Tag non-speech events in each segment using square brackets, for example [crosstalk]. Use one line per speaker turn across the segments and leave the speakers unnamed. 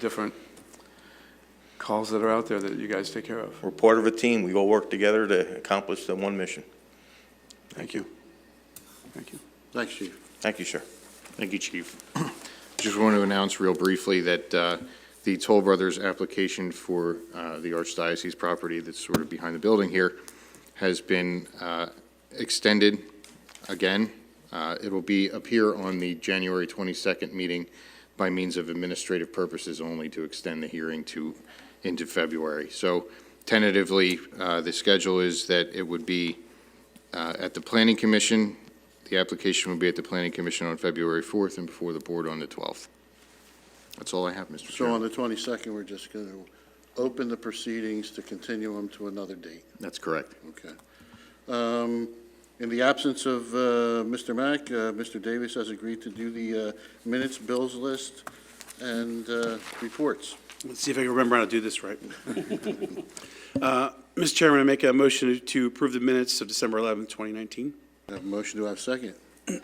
different calls that are out there that you guys take care of.
We're part of a team. We all work together to accomplish the one mission.
Thank you. Thank you.
Thanks, Chief.
Thank you, sir.
Thank you, Chief.
Just want to announce real briefly that uh, the Toll Brothers application for uh, the Archdiocese property that's sort of behind the building here has been uh, extended again. Uh, It will be, appear on the January 22nd meeting by means of administrative purposes only to extend the hearing to, into February. So tentatively, uh, the schedule is that it would be uh, at the Planning Commission, the application will be at the Planning Commission on February 4th and before the board on the 12th. That's all I have, Mr.
So on
Chairman.
the 22nd, we're just going to open the proceedings to continue them to another date,
That's correct.
okay? Um, In the absence of uh, Mr. Mack, uh, Mr. Davis has agreed to do the uh, minutes, bills list, and uh, reports.
Let's see if I can remember how to do this right. [laughs] Uh, Mr. Chairman, I make a motion to approve the minutes of December 11th, 2019.
I Have a motion, do I have a second?
second.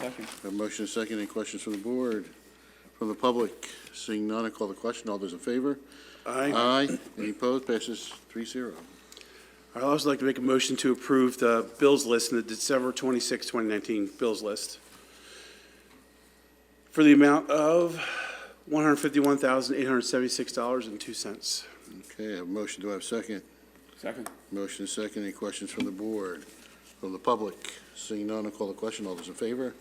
I Have a motion, and a second, any questions from the board, from the public? Seeing none, I call the question, all those in favor?
Aye.
Aye. Any opposed, passes three zero.
I'd also like to make a motion to approve the bills list in the December 26th, 2019 bills list for the amount of $151,876.02.
Okay, I have a motion, do I have a second?
Second.
Motion is second. Any questions from the board, from the public? Seeing none, I'll call the question. All those in favor?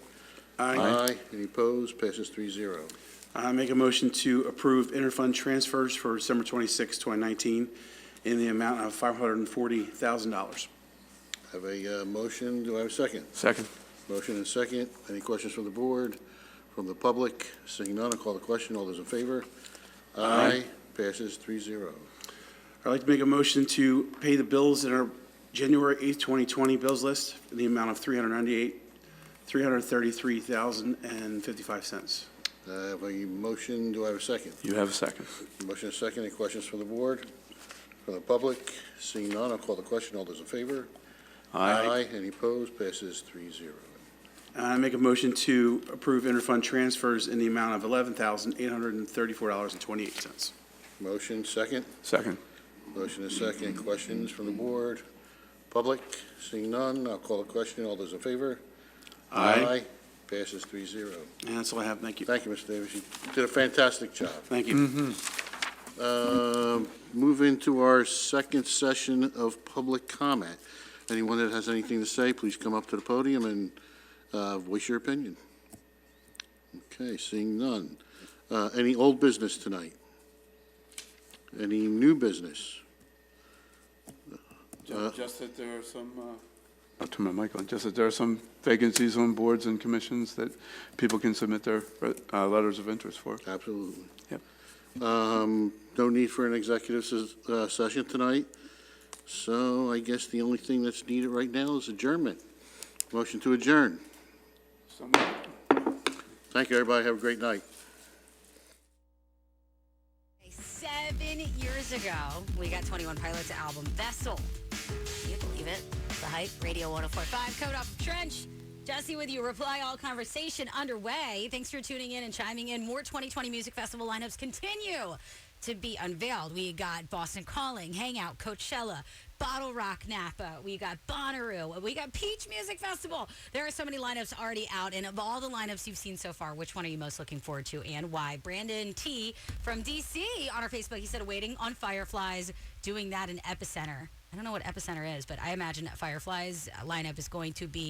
Any opposed? Passes three zero.
I make a motion to approve interfund transfers for December 26th, 2019 in the amount of $540,000.
Have a uh, motion. Do I have a second?
Second.
Motion and second. Any questions from the board, from the public? Seeing none, I'll call the question. All those in favor? Aye. Passes three zero.
I'd like to make a motion to pay the bills in our January 8th, 2020 bills list in the amount of 398, $333,055.
Have a motion. Do I have a second?
You have a second.
Motion and second. Any questions from the board, from the public? Seeing none, I'll call the question. All those in favor? Any opposed? Passes three zero.
And I make a motion to approve interfund transfers in the amount of $11,834.28.
Motion, second.
Second.
Motion is second. Questions from the board? Public? Seeing none, I'll call a question. All those in favor? Passes three zero.
And that's all I have. Thank you.
Thank you, Mr. Davis. You did a fantastic job.
Thank you.
Um, Move into our second session of public comment. Anyone that has anything to say, please come up to the podium and uh, voice your opinion. Okay, seeing none. Uh, Any old business tonight? Any new business?
Just that there are some, uh, I'll turn my mic on, just that there are some vacancies on boards and commissions that people can submit their uh, letters of interest for.
Absolutely.
Yep.
Um, No need for an executive ses- uh, session tonight, so I guess the only thing that's needed right now is adjournment. Motion to adjourn. Thank you, everybody. Have a great night.
Seven years ago, we got 21 Pilots' album Vessel. Can you believe it? The Hype, Radio 1045, Code Off Trench. Jesse with you, reply all conversation underway. Thanks for tuning in and chiming in. More 2020 Music Festival lineups continue to be unveiled. We got Boston Calling, Hangout, Coachella, Bottle Rock Napa. We got Bonnaroo. We got Peach Music Festival. There are so many lineups already out. And of all the lineups you've seen so far, which one are you most looking forward to and why? Brandon T from DC on our Facebook, he said, waiting on Fireflies, doing that in Epicenter. I don't know what Epicenter is, but I imagine that Fireflies lineup is going to be